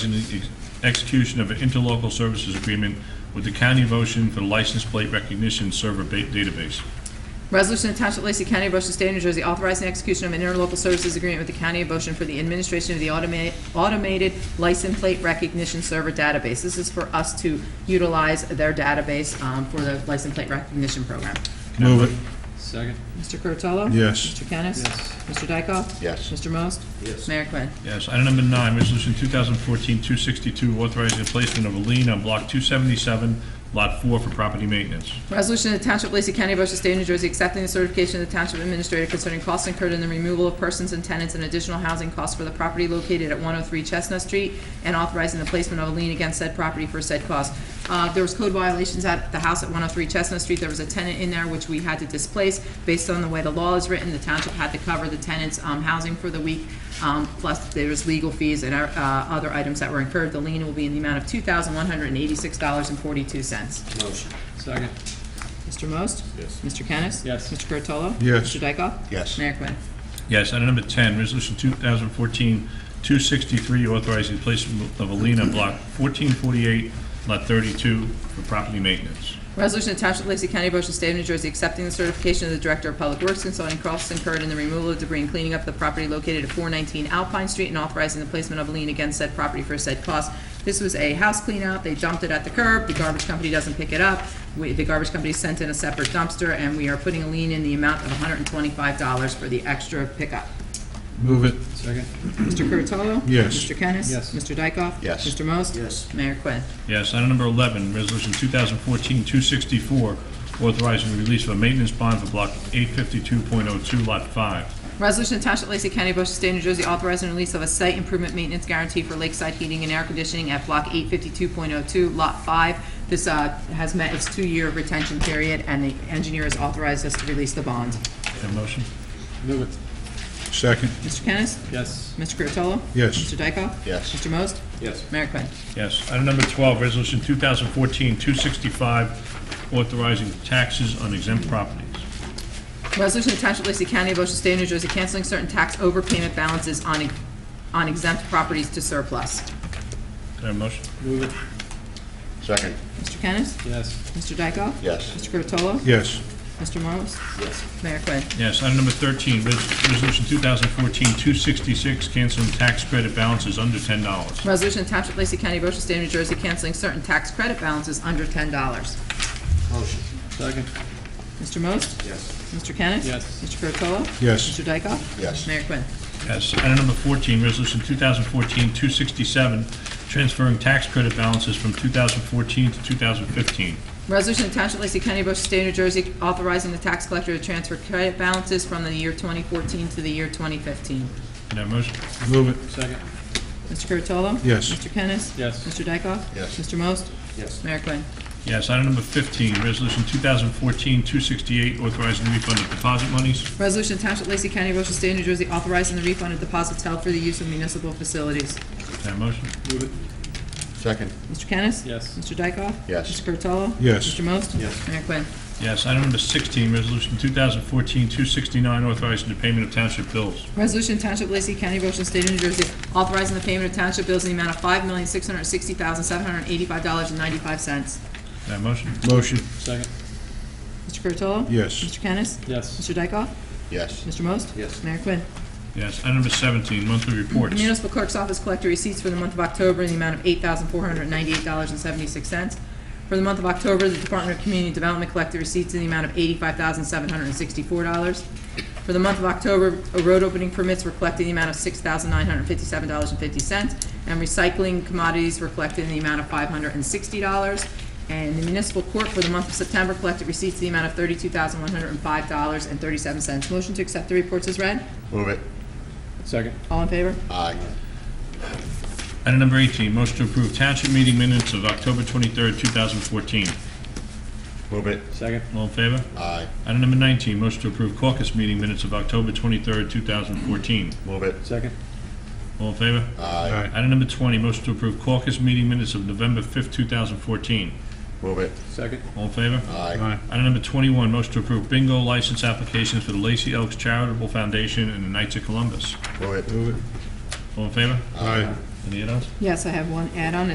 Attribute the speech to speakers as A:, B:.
A: in the ex- execution of an interlocal services agreement with the County of Ocean for the license plate recognition server ba- database.
B: Resolution of Township of Lacey County, Ocean State, New Jersey, authorizing execution of an interlocal services agreement with the County of Ocean for the administration of the automa- automated license plate recognition server database. This is for us to utilize their database um, for the license plate recognition program.
A: Move it.
C: Second.
B: Mr. Curatolo?
A: Yes.
B: Mr. Kennis?
C: Yes.
B: Mr. Dykoff?
D: Yes.
B: Mr. Most?
C: Yes.
B: Mayor Quinn.
A: Yes. Item number nine, resolution 2014-262, authorizing the placement of a lien on block 277, lot 4 for property maintenance.
B: Resolution of the Township of Lacey County, Ocean State, New Jersey, accepting the certification of the Township Administrator concerning costs incurred in the removal of persons and tenants and additional housing costs for the property located at 103 Chestnut Street, and authorizing the placement of a lien against said property for said cost. Uh, There was code violations at the house at 103 Chestnut Street. There was a tenant in there which we had to displace. Based on the way the law is written, the township had to cover the tenant's um, housing for the week, um, plus there was legal fees and uh, other items that were incurred. The lien will be in the amount of $2,186.42.
C: Motion. Second.
B: Mr. Most? Yes. Mr. Kennis?
C: Yes.
B: Mr. Curatolo?
A: Yes.
B: Mr. Dykoff?
D: Yes.
B: Mayor Quinn.
A: Yes. Item number 10, resolution 2014-263, authorizing the placement of a lien on block 1448, lot 32 for property maintenance.
B: Resolution attached to Lacey County, Ocean State of New Jersey, accepting the certification of the Director of Public Works concerning costs incurred in the removal of debris and cleaning up the property located at 419 Alpine Street and authorizing the placement of a lien against said property for said cost. This was a house cleanout. They dumped it at the curb. The garbage company doesn't pick it up. We- The garbage company sent in a separate dumpster, and we are putting a lien in the amount of $125 for the extra pickup.
A: Move it.
C: Second.
B: Mr. Curatolo?
A: Yes.
B: Mr. Kennis?
C: Yes.
B: Mr. Dykoff?
D: Yes.
B: Mr. Most?
C: Yes.
B: Mayor Quinn.
A: Yes. Item number 11, Resolution 2014-264, authorizing the release of a maintenance bond for Block 852.02, Lot 5.
B: Resolution to Township of Lacey County, Ocean State, New Jersey, authorizing release of a site improvement maintenance guarantee for lakeside heating and air conditioning at Block 852.02, Lot 5. This uh, has met its two-year retention period, and the engineer has authorized us to release the bond.
A: Have a motion?
C: Move it.
A: Second.
B: Mr. Kennis?
C: Yes.
B: Mr. Curatolo?
A: Yes.
B: Mr. Dykoff?
D: Yes.
B: Mr. Most?
C: Yes.
B: Mayor Quinn.
A: Yes. Item number 12, Resolution 2014-265, authorizing taxes on exempt properties.
B: Resolution attached to Lacey County, Ocean State, New Jersey, canceling certain tax overpayment balances on ex- on exempt properties to surplus.
A: Can I have a motion?
C: Move it.
D: Second.
B: Mr. Kennis?
C: Yes.
B: Mr. Dykoff?
D: Yes.
B: Mr. Curatolo?
A: Yes.
B: Mr. Most?
C: Yes.
B: Mayor Quinn.
A: Yes. Item number 13, Res- Resolution 2014-266, canceling tax credit balances under $10.
B: Resolution Township of Lacey County, Ocean State, New Jersey, canceling certain tax credit balances under ten dollars.
C: Motion. Second.
B: Mr. Most?
C: Yes.
B: Mr. Kennis?
C: Yes.
B: Mr. Curatolo?
A: Yes.
B: Mr. Dykoff?
D: Yes.
B: Mayor Quinn.
A: Yes. Item number 14, Resolution 2014-267, transferring tax credit balances from 2014 to 2015.
B: Resolution of Township of Lacey County, Ocean State, New Jersey, authorizing the tax collector to transfer credit balances from the year twenty fourteen to the year twenty fifteen.
A: Can I have a motion?
E: Move
C: Second.
B: Mr. Curatolo?
E: Yes.
B: Mr. Kennis?
C: Yes.
B: Mr. Dykoff?
D: Yes.
B: Mr. Most?
C: Yes.
B: Mayor Quinn.
A: Yes. Item number 15, Resolution 2014-268, authorizing refund of deposit monies.
B: Resolution of Township of Lacey County, Ocean State, New Jersey, authorizing the refund of deposits held for the use of municipal facilities.
A: Can I have a motion?
C: Move it.
D: Second.
B: Mr. Kennis?
C: Yes.
B: Mr. Dykoff?
D: Yes.
B: Mr. Curatolo?
E: Yes.
B: Mr. Most?
C: Yes.
B: Mayor Quinn.
A: Yes. Item number 16, Resolution 2014-269, authorizing the payment of township bills.
B: Resolution Township of Lacey County, Ocean State of New Jersey, authorizing the payment of township bills in the amount of five million, six hundred sixty thousand, seven hundred eighty-five dollars and ninety-five cents.
A: Can I have a motion?
E: it. Motion.
C: Second.
B: Mr. Curatolo?
E: Yes.
B: Mr. Kennis?
C: Yes.
B: Mr. Dykoff?
D: Yes.
B: Mr. Most?
C: Yes.
B: Mayor Quinn.
A: Yes. Item number 17, monthly reports. Can
B: Municipal Clerk's Office collector receipts for the month of October in the amount of $8,498.76. For the month of October, the Department of Community Development collected receipts in the amount of $85,764. For the month of October, road opening permits were collected in the amount of $6,957.50, and recycling commodities were collected in the amount of $560. And the municipal court for the month of September collected receipts in the amount of $32,105.37. Motion to accept the reports is read.
D: Move it.
C: Second.
B: All in favor?
D: Aye.
A: Item number 18, motion to approve township meeting minutes of October 23rd, 2014.
D: Move it.
C: Second.
A: All in favor?
D: Aye.
A: Item number 19, motion to approve caucus meeting minutes of October 23rd, 2014.
D: Move it.
C: Second.
A: All in favor?
D: Aye.
A: Item number 20, motion to approve caucus meeting minutes of November 5th, 2014.
D: Move it.
C: Second.
A: All in favor?
D: Aye.
E: Aye.
A: Item number 21, motion to approve bingo license applications for the Lacey Elks Charitable Foundation and the Knights of Columbus.
D: Move it.
E: Move it.
A: All in favor?
E: Aye.
A: Any add-ons?
B: Yes, I have one add-on.